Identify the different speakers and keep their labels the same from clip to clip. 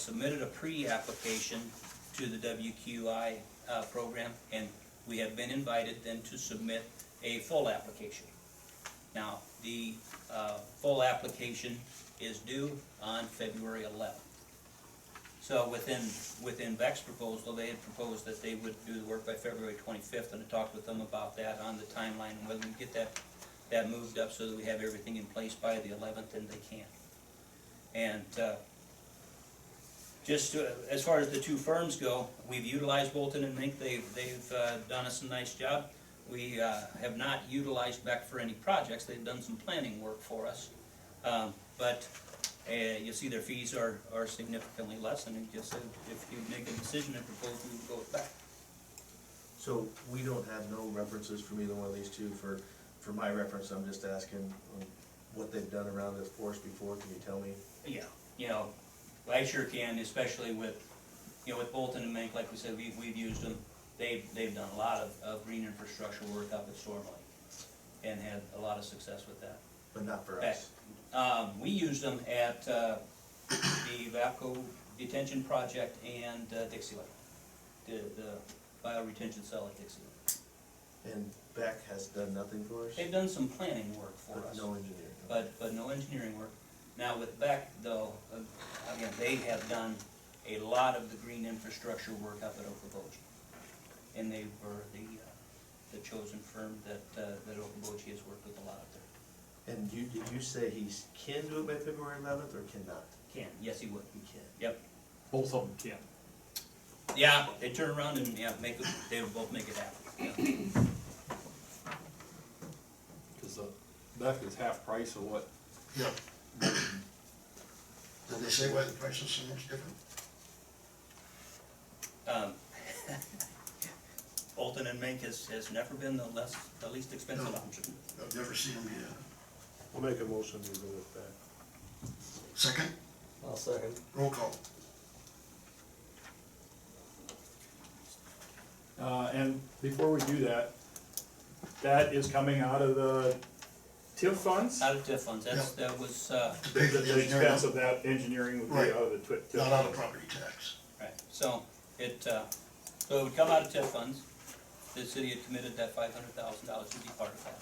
Speaker 1: submitted a pre-application to the WQI uh, program, and we have been invited then to submit a full application. Now, the uh, full application is due on February 11th. So within, within Beck's proposal, they had proposed that they would do the work by February 25th, and I talked with them about that on the timeline, and whether we get that, that moved up so that we have everything in place by the 11th, and they can. And uh, just uh, as far as the two firms go, we've utilized Bolton and Mink, they've, they've uh, done us a nice job. We uh, have not utilized Beck for any projects, they've done some planning work for us. Um, But uh, you see their fees are, are significantly less, and it just, said if you make a decision and propose, we would go with Beck.
Speaker 2: So we don't have no references from either one of these two for, for my reference, I'm just asking um, what they've done around this force before, can you tell me?
Speaker 1: Yeah. You know, I sure can, especially with, you know, with Bolton and Mink, like we said, we've, we've used them. They've, they've done a lot of, of green infrastructure work up at Storm Lake, and had a lot of success with that.
Speaker 2: But not for us.
Speaker 1: Um, we used them at, uh, the VAPCO detention project and uh, Dixie Lake, the, the bio retention cell at Dixie Lake.
Speaker 2: And Beck has done nothing for us?
Speaker 1: They've done some planning work for
Speaker 2: But
Speaker 1: us,
Speaker 2: No engineering.
Speaker 1: but, but no engineering work. Now with Beck though, uh, again, they have done a lot of the green infrastructure work up at Okoboji. And they were the, uh, the chosen firm that, uh, that Okoboji has worked with a lot up there.
Speaker 2: And you, did you say he can do it by February eleventh or cannot?
Speaker 1: Ken, yes, he would.
Speaker 2: He can.
Speaker 1: Yep.
Speaker 3: Both of them can.
Speaker 1: Yeah, they turn around and, yeah, make, it- they would both make it happen. yeah.
Speaker 3: Cause uh, the Beck is half price of what,
Speaker 4: Yeah. Did they say why the price is so much different?
Speaker 1: Um, Bolton and Mink has, has never been the less, the least expensive
Speaker 4: No.
Speaker 1: option.
Speaker 4: I've never seen them yet.
Speaker 5: I'll make a motion to go with that.
Speaker 4: Second,
Speaker 6: I'll second.
Speaker 4: roll call.
Speaker 3: uh, and before we do that, that is coming out of the TIF funds?
Speaker 1: Out of TIF funds, that's, that was, uh,
Speaker 4: To
Speaker 3: The
Speaker 4: pay for the
Speaker 3: the expense
Speaker 4: engineering,
Speaker 3: of that engineering would be
Speaker 4: Right.
Speaker 3: out of the twi- TIF.
Speaker 4: not out of
Speaker 3: funds.
Speaker 4: property tax.
Speaker 1: right, so it, uh, so it would come out of TIF funds. The city had committed that five hundred thousand dollars to be part of that.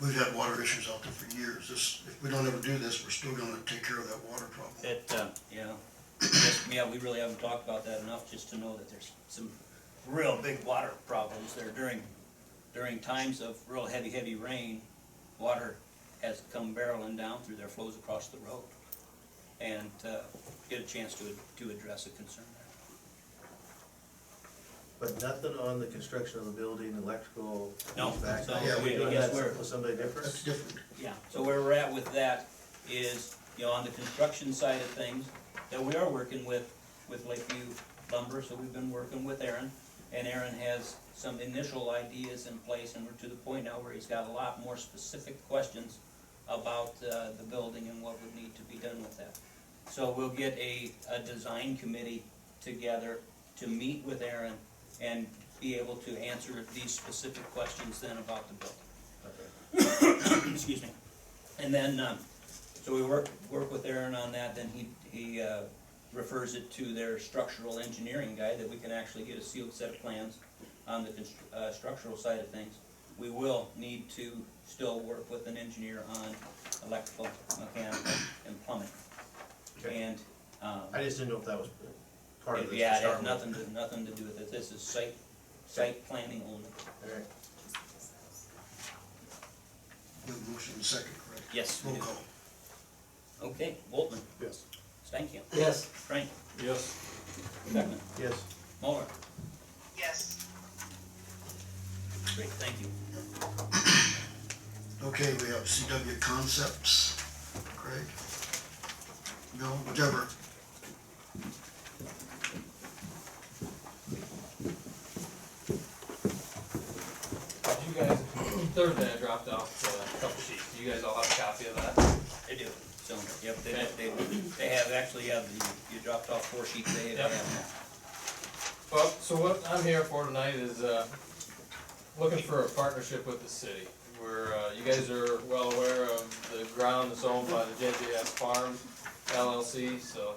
Speaker 4: We've had water issues out there for years. This, if we don't ever do this, we're still gonna take care of that water problem.
Speaker 1: It, uh, you know, just- yeah, we really haven't talked about that enough, just to know that there's some real big water problems there during, during times of real heavy, heavy rain. Water has come barreling down through their flows across the road. And, uh, get a chance to, to address a concern there.
Speaker 2: But nothing on the construction of the building, electrical?
Speaker 1: No,
Speaker 2: HVAC?
Speaker 1: so
Speaker 4: Yeah, we-
Speaker 2: You're doing
Speaker 1: I guess
Speaker 2: that
Speaker 1: we're-
Speaker 2: With somebody
Speaker 4: That's
Speaker 2: different?
Speaker 4: different.
Speaker 1: Yeah, so where we're at with that is, you know, on the construction side of things, that we are working with, with Lakeview Lumber, so we've been working with Aaron. And Aaron has some initial ideas in place, and we're to the point now where he's got a lot more specific questions about, uh, the building and what would need to be done with that. So we'll get a, a design committee together to meet with Aaron and be able to answer these specific questions then about the building
Speaker 2: Okay.
Speaker 1: excuse me. And then, um, so we work, work with Aaron on that, then he, he, uh, refers it to their structural engineering guy that we can actually get a sealed set of plans on the constr- uh, structural side of things. We will need to still work with an engineer on electrical, mechanical, and plumbing.
Speaker 2: Okay.
Speaker 1: And, um,
Speaker 2: I just didn't know if that was part of this. to
Speaker 1: yeah, it
Speaker 2: start
Speaker 1: has
Speaker 2: with.
Speaker 1: nothing, to- nothing to do with it, this is site, site planning only.
Speaker 2: All right.
Speaker 4: We have a motion and second, correct?
Speaker 1: Yes, we
Speaker 4: Roll
Speaker 1: do.
Speaker 4: call.
Speaker 1: Okay, Boltman,
Speaker 3: Yes.
Speaker 1: Stankin,
Speaker 6: Yes.
Speaker 1: Frank,
Speaker 3: Yes,
Speaker 1: Beckman,
Speaker 2: Yes.
Speaker 1: Muller.
Speaker 7: Yes.
Speaker 1: Great, thank you.
Speaker 4: Okay, we have CW Concepts, Craig? No, whatever.
Speaker 8: You guys, Thursday I dropped off uh, a couple sheets, you guys all have a copy of that?
Speaker 1: They do, so, yep, they, they, they have, actually, have, the- you dropped off four sheets, they have.
Speaker 8: Yep. Well, so what I'm here for tonight is, uh, looking for a partnership with the city. We're, uh, you guys are well aware of the ground that's owned by the JJS Farm LLC, so